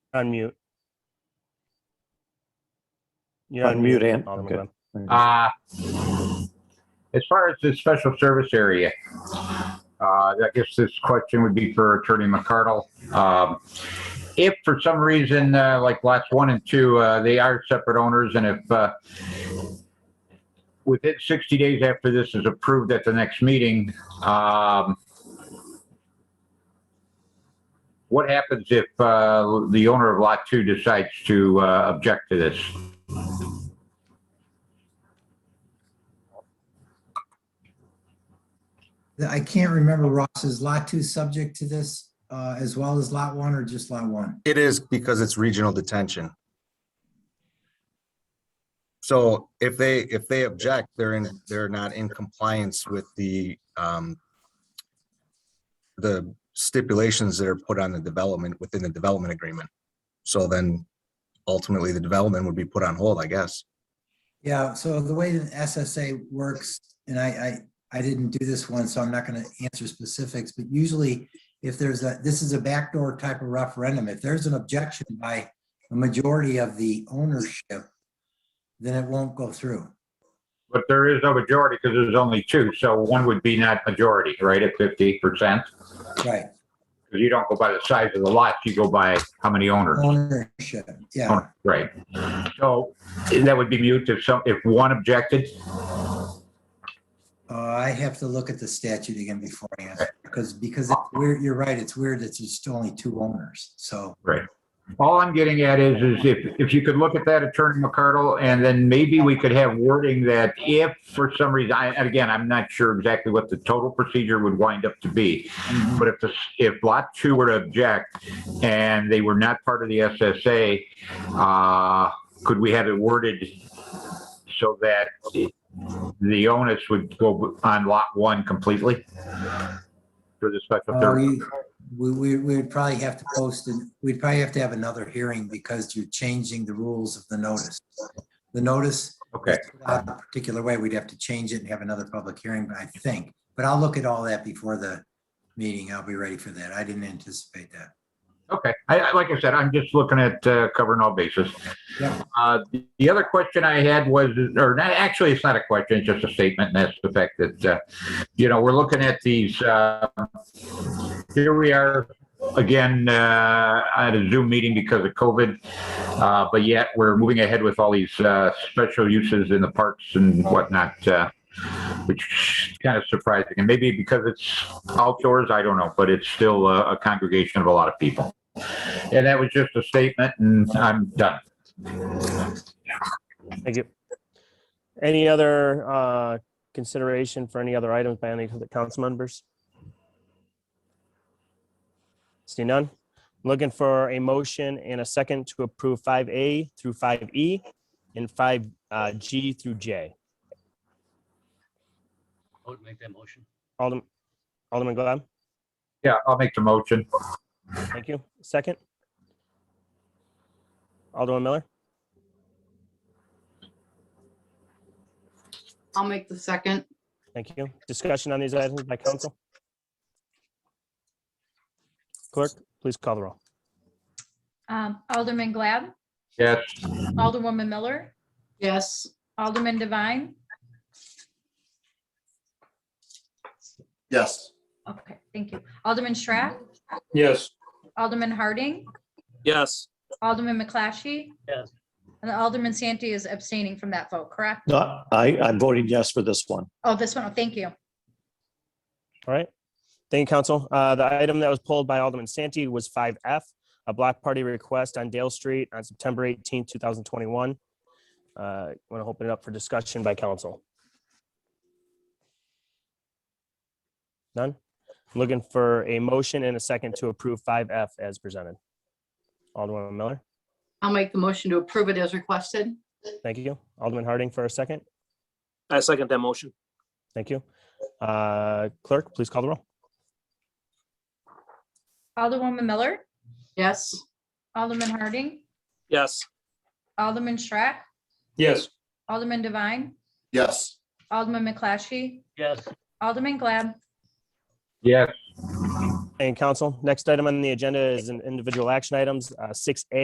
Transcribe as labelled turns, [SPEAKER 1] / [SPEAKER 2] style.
[SPEAKER 1] On mute. You're
[SPEAKER 2] On mute, Ann.
[SPEAKER 1] Alderman
[SPEAKER 2] Okay.
[SPEAKER 1] Glenn.
[SPEAKER 3] Uh, as far as the special service area, uh, I guess this question would be for Attorney McCardle. Um, if for some reason, uh, like lots one and two, uh, they are separate owners and if, uh, within 60 days after this is approved at the next meeting, um, what happens if, uh, the owner of lot two decides to, uh, object to this?
[SPEAKER 4] I can't remember, Ross, is lot two subject to this uh, as well as lot one or just lot one?
[SPEAKER 5] It is because it's regional detention. So if they, if they object, they're in, they're not in compliance with the, um, the stipulations that are put on the development, within the development agreement. So then ultimately the development would be put on hold, I guess.
[SPEAKER 4] Yeah, so the way that SSA works, and I, I, I didn't do this one, so I'm not going to answer specifics, but usually if there's a, this is a backdoor type of referendum, if there's an objection by a majority of the ownership, then it won't go through.
[SPEAKER 3] But there is no majority because there's only two, so one would be not majority, right, at fifty percent?
[SPEAKER 4] Right,
[SPEAKER 3] Because you don't go by the size of the lots, you go by how many owners,
[SPEAKER 4] ownership, yeah.
[SPEAKER 3] Owner, right? So that would be mute if some, if one objected,
[SPEAKER 4] Uh, I have to look at the statute again before I answer, because, because it's weird, you're right, it's weird, it's just only two owners, so.
[SPEAKER 3] right? All I'm getting at is, is if, if you could look at that, Attorney McCardle, and then maybe we could have wording that if for some reason, I, and again, I'm not sure exactly what the total procedure would wind up to be. But if the, if lot two were to object and they were not part of the SSA, uh, could we have it worded so that the onus would go on lot one completely? For the special
[SPEAKER 4] Uh,
[SPEAKER 3] service?
[SPEAKER 4] We, we, we- we'd probably have to post, and we'd probably have to have another hearing because you're changing the rules of the notice. The notice,
[SPEAKER 3] Okay,
[SPEAKER 4] uh, a particular way, we'd have to change it and have another public hearing, I think. But I'll look at all that before the meeting. I'll be ready for that. I didn't anticipate that.
[SPEAKER 3] okay. I, I, like I said, I'm just looking at, uh, covering all bases.
[SPEAKER 4] Yeah.
[SPEAKER 3] Uh, the other question I had was, or not, actually, it's not a question, it's just a statement, and that's the fact that, uh, you know, we're looking at these, uh, here we are again, uh, at a Zoom meeting because of COVID. Uh, but yet we're moving ahead with all these, uh, special uses in the parks and whatnot, uh, which is kind of surprising. And maybe because it's outdoors, I don't know, but it's still a, a congregation of a lot of people. And that was just a statement and I'm done.
[SPEAKER 1] Thank you. Any other uh, consideration for any other items by any of the council members? See none? Looking for a motion and a second to approve five A through five E and five uh, G through J.
[SPEAKER 6] I would make that motion.
[SPEAKER 1] Alderman, Alderman Glad,
[SPEAKER 3] Yeah, I'll make the motion.
[SPEAKER 1] thank you. Second? Alderman Miller,
[SPEAKER 7] I'll make the second.
[SPEAKER 1] thank you. Discussion on these items by council? Clerk, please call the roll.
[SPEAKER 8] Um, Alderman Glad,
[SPEAKER 3] Yes.
[SPEAKER 8] Alderwoman Miller,
[SPEAKER 7] Yes,
[SPEAKER 8] Alderman Devine.
[SPEAKER 2] Yes.
[SPEAKER 8] Okay, thank you. Alderman Schratt,
[SPEAKER 2] Yes.
[SPEAKER 8] Alderman Harding,
[SPEAKER 9] Yes.
[SPEAKER 8] Alderman McClatchy.
[SPEAKER 9] Yes.
[SPEAKER 8] And Alderman Santee is abstaining from that vote, correct?
[SPEAKER 2] No, I, I'm voting yes for this one.
[SPEAKER 8] Oh, this one, oh, thank you.
[SPEAKER 1] All right. Thank you, Council. Uh, The item that was pulled by Alderman Santee was 5F, a block party request on Dale Street on September 18, 2021. Want to Uh, open it up for discussion by council? None? Looking for a motion and a second to approve 5F as presented. Alderman Miller,
[SPEAKER 7] I'll make the motion to approve it as requested.
[SPEAKER 1] thank you. Alderman Harding for a second,
[SPEAKER 9] I second that motion.
[SPEAKER 1] thank you. Uh, Clerk, please call the roll.
[SPEAKER 8] Alderwoman Miller,
[SPEAKER 7] Yes,
[SPEAKER 8] Alderman Harding,
[SPEAKER 9] Yes.
[SPEAKER 8] Alderman Schratt,
[SPEAKER 9] Yes.
[SPEAKER 8] Alderman Devine,
[SPEAKER 2] Yes.
[SPEAKER 8] Alderman McClatchy,
[SPEAKER 9] Yes.
[SPEAKER 8] Alderman Glad.
[SPEAKER 3] Yes.
[SPEAKER 1] And council, next item on the agenda is an individual action items, uh, 6A